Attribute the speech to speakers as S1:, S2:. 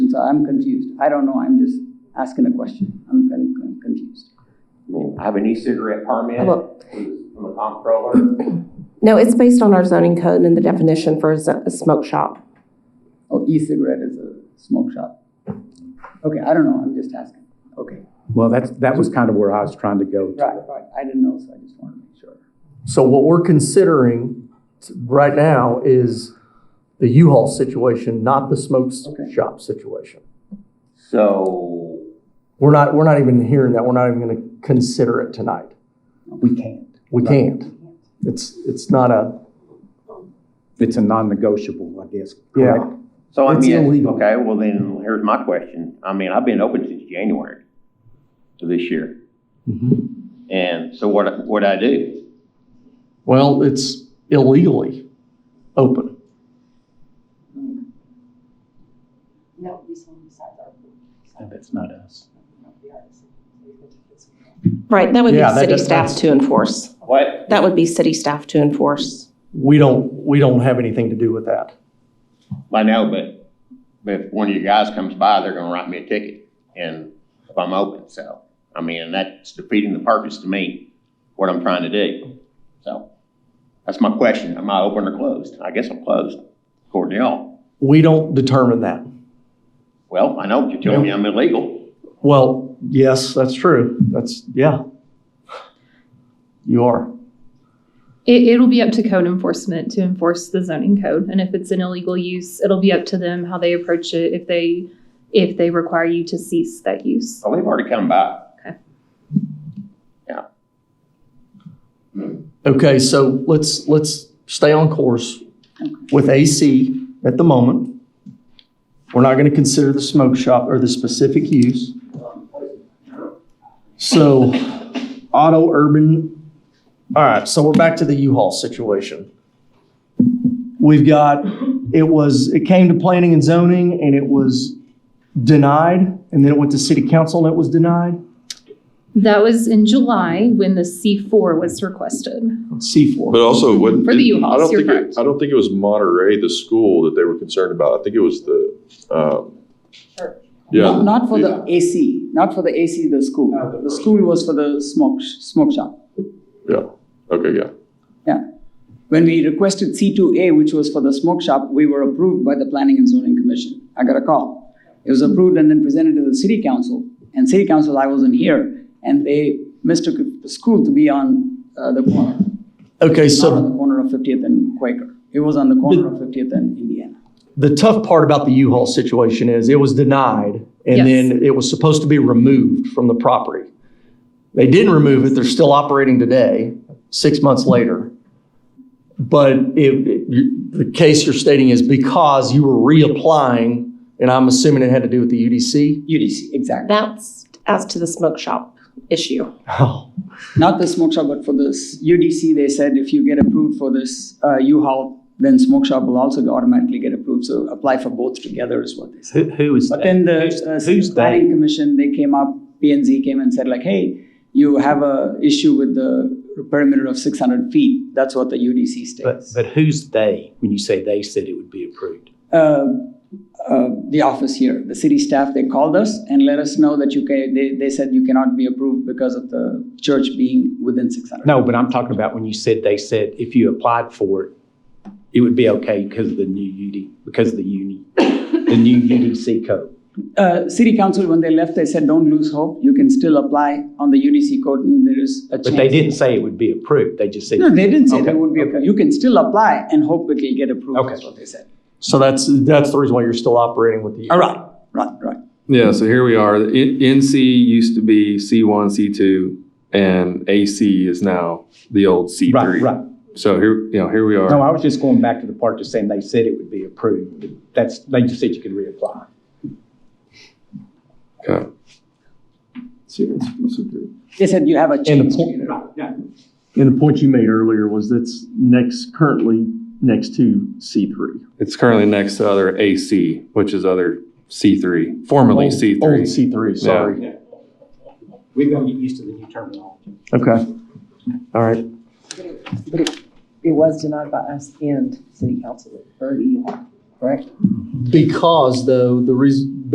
S1: I'm confused. I don't know, I'm just asking a question. I'm con- con- confused.
S2: I mean, I have an e-cigarette permit
S3: Well-
S2: from the comptroller.
S3: No, it's based on our zoning code and the definition for a zo- a smoke shop.
S1: Oh, e-cigarette is a smoke shop. Okay, I don't know, I'm just asking. Okay,
S4: Well, that's, that was kind of where I was trying to go.
S1: right, right, I didn't know, so I just wanted to make sure.
S5: So what we're considering t- right now is the U-Haul situation, not the smoke s-
S1: Okay.
S5: shop situation.
S2: So
S5: We're not, we're not even hearing that, we're not even gonna consider it tonight.
S4: We can't.
S5: We can't. It's, it's not a,
S4: It's a non-negotiable, I guess. correct?
S5: yeah.
S2: So I
S4: It's
S2: mean,
S4: illegal.
S2: okay, well then, here's my question. I mean, I've been open since January of this year.
S5: mm-hmm.
S2: And so what, what I do?
S5: Well, it's illegally open.
S6: That would be someone besides our group.
S4: That's not us.
S6: not the artist.
S3: Right, that would be
S5: Yeah, that
S3: city
S5: does-
S3: staff
S5: that's-
S3: to enforce.
S2: What?
S3: That would be city staff to enforce.
S5: We don't, we don't have anything to do with that.
S2: I know, but, but if one of you guys comes by, they're gonna write me a ticket and if I'm open, so. I mean, that's defeating the purpose to me, what I'm trying to do. So, that's my question. Am I open or closed? I guess I'm closed, according to y'all.
S5: We don't determine that.
S2: Well, I know, you're telling me I'm illegal.
S5: Well, yes, that's true. That's, yeah. You are.
S7: It, it'll be up to code enforcement to enforce the zoning code, and if it's an illegal use, it'll be up to them how they approach it, if they, if they require you to cease that use.
S2: Oh, they've already come by.
S5: Okay, so let's, let's stay on course with AC at the moment. We're not going to consider the smoke shop or the specific use. So auto urban, all right, so we're back to the U-Haul situation. We've got, it was, it came to planning and zoning and it was denied, and then it went to city council and it was denied.
S7: That was in July when the C four was requested.
S5: C4.
S8: But also, what?
S7: For the U-Hauls,
S8: I don't
S7: you're
S8: think it-
S7: correct.
S8: I don't think it was Monterey, the school that they were concerned about. I think it was the, um,
S1: Not-
S8: yeah,
S1: Not for the AC, not for the AC, the school. The school was for the smoke, sh- smoke shop.
S8: yeah. Okay, yeah.
S1: Yeah. When we requested C2A, which was for the smoke shop, we were approved by the Planning and Zoning Commission. I got a call. It was approved and then presented to the city council. And city council, I wasn't here, and they mistook the school to be on uh, the corner,
S5: Okay,
S1: not
S5: so
S1: on the corner of 50th and Quaker. It was on the corner of 50th and Indiana.
S5: the tough part about the U-Haul situation is it was denied and
S7: Yes.
S5: then it was supposed to be removed from the property. They didn't remove it. They're still operating today, six months later. But it, it- you- the case you're stating is because you were reapplying, and I'm assuming it had to do with the UDC.
S1: UDC, exactly.
S3: That's as to the smoke shop issue.
S5: Oh,
S1: Not the smoke shop, but for this UDC, they said if you get approved for this uh, U-Haul, then smoke shop will also automatically get approved. So apply for both together is what they said.
S9: Who, who is
S1: But
S9: that?
S1: then the
S9: Who's-
S1: uh,
S9: Who's
S1: planning
S9: they?
S1: commission, they came up, P and Z came and said like, hey, you have a issue with the perimeter of six hundred feet. That's what the UDC
S9: But,
S1: states.
S9: but who's they when you say they said it would be approved?
S1: Uh, uh, The office here, the city staff, they called us and let us know that you can, they, they said you cannot be approved because of the church being within six hundred.
S9: No, but I'm talking about when you said they said if you applied for it, it would be okay because of the new UD, because of the uni, the new UDC code.
S1: Uh, city council, when they left, they said, don't lose hope. You can still apply on the UDC code and there is a chance.
S9: But they didn't say it would be approved. They just said.
S1: No, they didn't say that
S9: Okay,
S1: would be approved. You can still apply and hope it will get approved,
S9: Okay.
S1: is what they said.
S5: so that's, that's the reason why you're still operating with the.
S1: All right, right, right.
S10: Yeah, so here we are. The N- NC used to be C1, C2, and AC is now the old C3.
S9: Right, right.
S10: So here, you know, here we are.
S9: No, I was just going back to the part just saying they said it would be approved. That's, they just said you could reapply.
S10: Okay.
S1: They said you have a
S5: And
S1: change.
S5: the point,
S9: Yeah.
S5: and the point you made earlier was that's next, currently next to C three.
S10: It's currently next to other AC, which is other C3, formerly
S5: Old-
S10: C3.
S5: Old C three, sorry.
S9: We've got to get used to the new terminology.
S5: Okay. All right.
S6: But it, it was denied by us and city council, or you, correct?
S5: Because though, the reason,